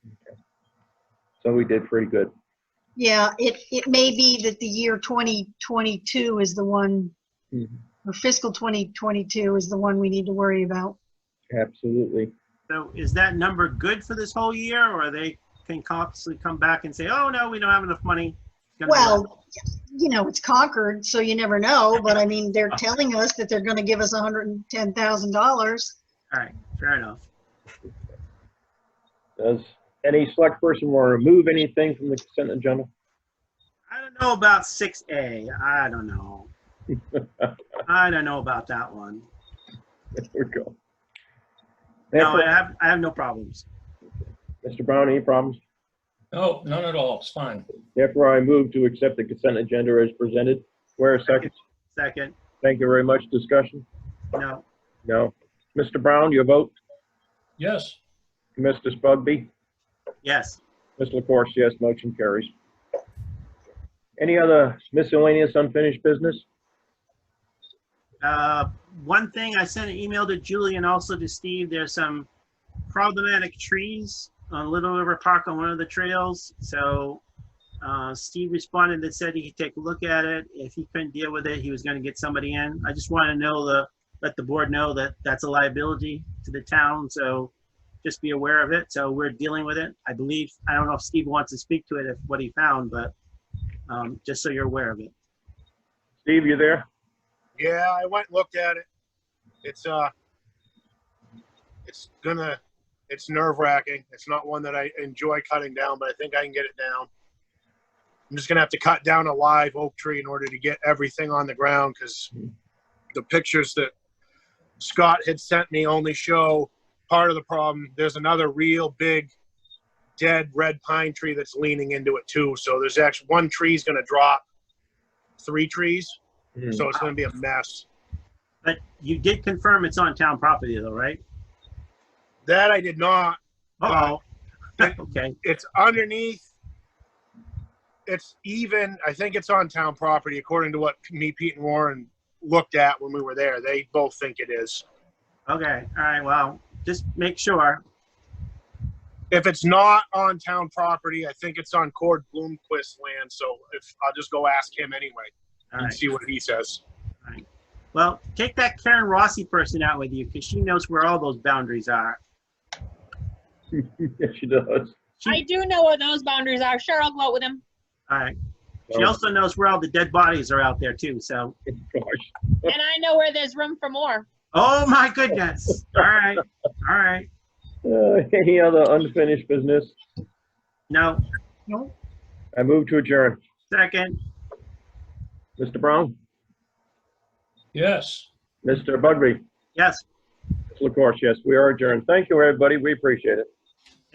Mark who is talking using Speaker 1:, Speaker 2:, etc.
Speaker 1: So we did pretty good.
Speaker 2: Yeah, it, it may be that the year 2022 is the one, or fiscal 2022 is the one we need to worry about.
Speaker 1: Absolutely.
Speaker 3: So is that number good for this whole year, or they can constantly come back and say, oh, no, we don't have enough money? It's gonna be less.
Speaker 2: Well, you know, it's Concord, so you never know, but I mean, they're telling us that they're gonna give us $110,000.
Speaker 3: All right, fair enough.
Speaker 1: Does any select person want to remove anything from the consent agenda?
Speaker 3: I don't know about six A. I don't know. I don't know about that one.
Speaker 1: There we go.
Speaker 3: No, I
Speaker 1: Therefore,
Speaker 3: have, I have no problems.
Speaker 1: Mr. Brown, any problems?
Speaker 4: No, Oh, none at all. It's fine.
Speaker 1: Therefore, I move to accept the consent agenda as presented. Where a second?
Speaker 3: Second,
Speaker 1: Thank you very much. Discussion?
Speaker 3: no,
Speaker 1: No. Mr. Brown, your vote?
Speaker 4: Yes,
Speaker 1: Mr. Spugby?
Speaker 3: yes.
Speaker 1: Mr. LaCourse, yes, motion carries. Any other miscellaneous unfinished business?
Speaker 3: Uh, one thing, I sent an email to Julie and also to Steve, there's some problematic trees on Little River Park on one of the trails. So, uh, Steve responded and said he could take a look at it. If he couldn't deal with it, he was gonna get somebody in. I just wanna know the, let the board know that that's a liability to the town, so just be aware of it. So we're dealing with it. I believe, I don't know if Steve wants to speak to it, if what he found, but, um, just so you're aware of it.
Speaker 1: Steve, you there?
Speaker 5: Yeah, I went and looked at it. It's uh, it's gonna, it's nerve wracking. It's not one that I enjoy cutting down, but I think I can get it down. I'm just gonna have to cut down a live oak tree in order to get everything on the ground because the pictures that Scott had sent me only show part of the problem. There's another real big dead red pine tree that's leaning into it too. So there's actually one tree's gonna drop, three trees.
Speaker 3: Mm.
Speaker 5: So it's gonna be a mess.
Speaker 3: But you did confirm it's on town property though, right?
Speaker 5: That I did not.
Speaker 3: Uh-oh.
Speaker 5: Uh,
Speaker 3: Okay,
Speaker 5: it's underneath. It's even, I think it's on town property, according to what me, Pete, and Warren looked at when we were there. They both think it is.
Speaker 3: okay, all right, well, just make sure.
Speaker 5: If it's not on town property, I think it's on Cord Bloomquist land, so if, I'll just go ask him anyway
Speaker 3: All
Speaker 5: and
Speaker 3: right.
Speaker 5: see what he says.
Speaker 3: Well, take that Karen Rossi person out with you because she knows where all those boundaries are.
Speaker 1: Yes, she does.
Speaker 6: I do know where those boundaries are. Sure, I'll go out with him.
Speaker 3: All right. She also knows where all the dead bodies are out there too, so.
Speaker 1: Oh, Gosh.
Speaker 6: And I know where there's room for more.
Speaker 3: Oh, my goodness. All right, all right.
Speaker 1: Uh, Any other unfinished business?
Speaker 3: No,
Speaker 2: Nope.
Speaker 1: I move to adjourn.
Speaker 3: second,
Speaker 1: Mr. Brown?
Speaker 4: yes.
Speaker 1: Mr. Bugby?
Speaker 3: yes.
Speaker 1: Mr. LaCourse, yes, we are adjourned. Thank you, everybody. We appreciate it.